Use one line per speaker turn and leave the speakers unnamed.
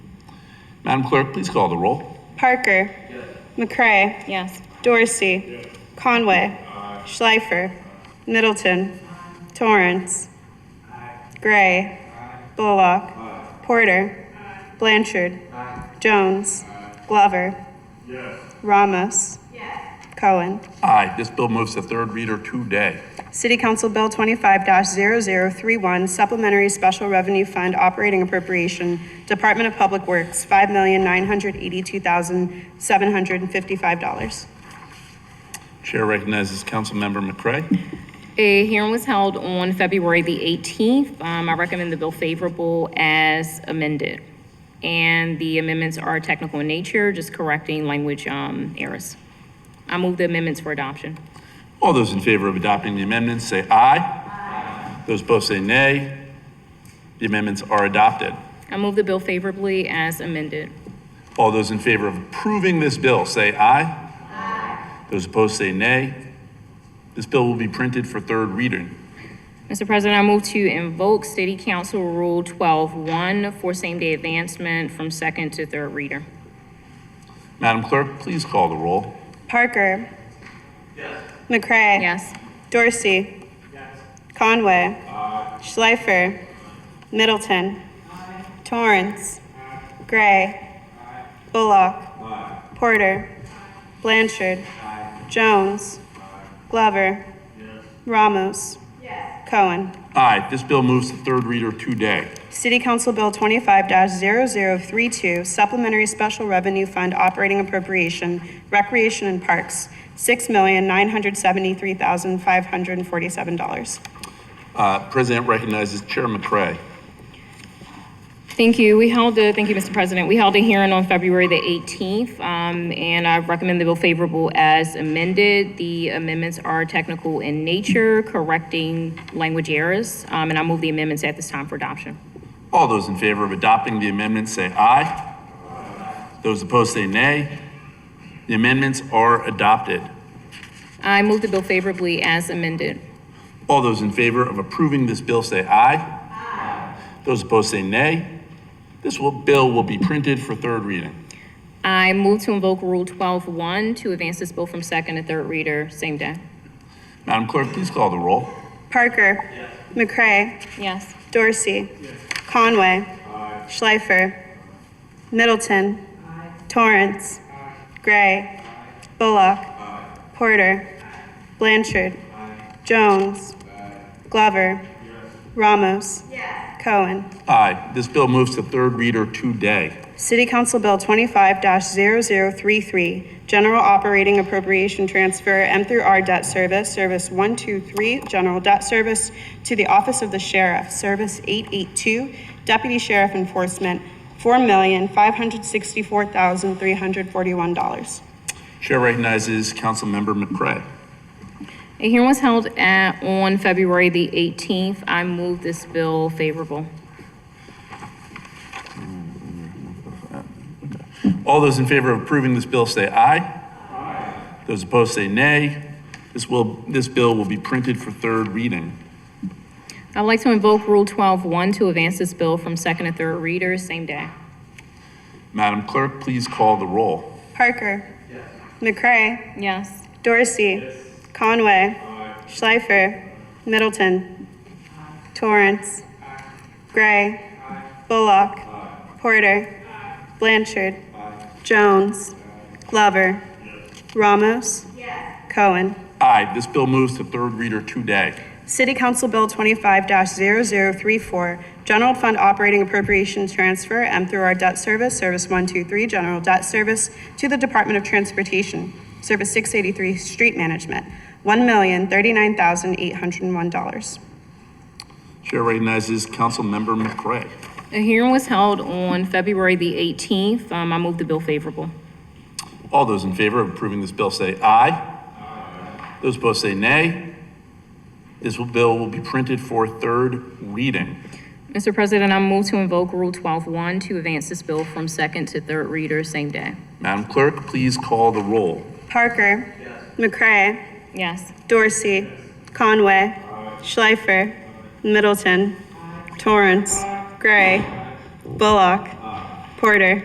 Madam Clerk, please call the roll.
Parker. McCray.
Yes.
Dorsey. Conway. Schleifer. Middleton. Torrance. Gray. Bullock. Porter. Blanchard. Jones. Glover. Ramos. Cohen.
Aye, this bill moves to third reader today.
City Council Bill twenty-five 31 Supplementary Special Revenue Fund Operating Appropriation, Department of Public Works, five million nine hundred eighty-two thousand seven hundred and fifty-five dollars.
Chair recognizes Councilmember McCray.
A hearing was held on February the 18th. Um, I recommend the bill favorable as amended. And the amendments are technical in nature, just correcting language um, errors. I move the amendments for adoption.
All those in favor of adopting the amendments say aye. Those opposed say nay. The amendments are adopted.
I move the bill favorably as amended.
All those in favor of approving this bill say aye. Aye. Those opposed say nay. This bill will be printed for third reading.
Mr. President, I move to invoke City Council Rule 12-1 for same-day advancement from second to third reader.
Madam Clerk, please call the roll.
Parker. McCray.
Yes.
Dorsey. Conway. Schleifer. Middleton. Torrance. Gray. Bullock. Porter. Blanchard. Jones. Glover. Ramos. Cohen.
Aye, this bill moves to third reader today.
City Council Bill twenty-five 32 Supplementary Special Revenue Fund Operating Appropriation, Recreation and Parks, six million nine hundred seventy-three thousand five hundred and forty-seven dollars.
Uh, President recognizes Chair McCray.
Thank you. We held a, thank you, Mr. President. We held a hearing on February the 18th, um, and I recommend the bill favorable as amended. The amendments are technical in nature, correcting language errors, um, and I move the amendments at this time for adoption.
All those in favor of adopting the amendment say aye. Those opposed say nay. The amendments are adopted.
I move the bill favorably as amended.
All those in favor of approving this bill say aye. Aye. Those opposed say nay. This will, bill will be printed for third reading.
I move to invoke Rule 12-1 to advance this bill from second to third reader, same day.
Madam Clerk, please call the roll.
Parker. McCray.
Yes.
Dorsey. Conway. Schleifer. Middleton. Torrance. Gray. Bullock. Porter. Blanchard. Jones. Glover. Ramos. Cohen.
Aye, this bill moves to third reader today.
City Council Bill twenty-five 33 General Operating Appropriation Transfer M through R Debt Service, Service one two three, General Debt Service, to the Office of the Sheriff, Service eight eight two, Deputy Sheriff Enforcement, four million, five hundred sixty-four thousand, three hundred forty-one dollars.
Chair recognizes Councilmember McCray.
A hearing was held at, on February the 18th. I move this bill favorable.
All those in favor of approving this bill say aye. Aye. Those opposed say nay. This will, this bill will be printed for third reading.
I'd like to invoke Rule 12-1 to advance this bill from second to third reader, same day.
Madam Clerk, please call the roll.
Parker. McCray.
Yes.
Dorsey. Conway. Schleifer. Middleton. Torrance. Gray. Bullock. Porter. Blanchard. Jones. Glover. Ramos. Cohen.
Aye, this bill moves to third reader today.
City Council Bill twenty-five 34 General Fund Operating Appropriations Transfer, M through our Debt Service, Service one two three, General Debt Service, to the Department of Transportation, Service six eighty-three, Street Management, one million thirty-nine thousand eight hundred and one dollars.
Chair recognizes Councilmember McCray.
A hearing was held on February the 18th. Um, I move the bill favorable.
All those in favor of approving this bill say aye. Those opposed say nay. This will- bill will be printed for third reading.
Mr. President, I move to invoke Rule 12-1 to advance this bill from second to third reader, same day.
Madam Clerk, please call the roll.
Parker. McCray.
Yes.
Dorsey. Conway. Schleifer. Middleton. Torrance. Gray. Bullock. Porter.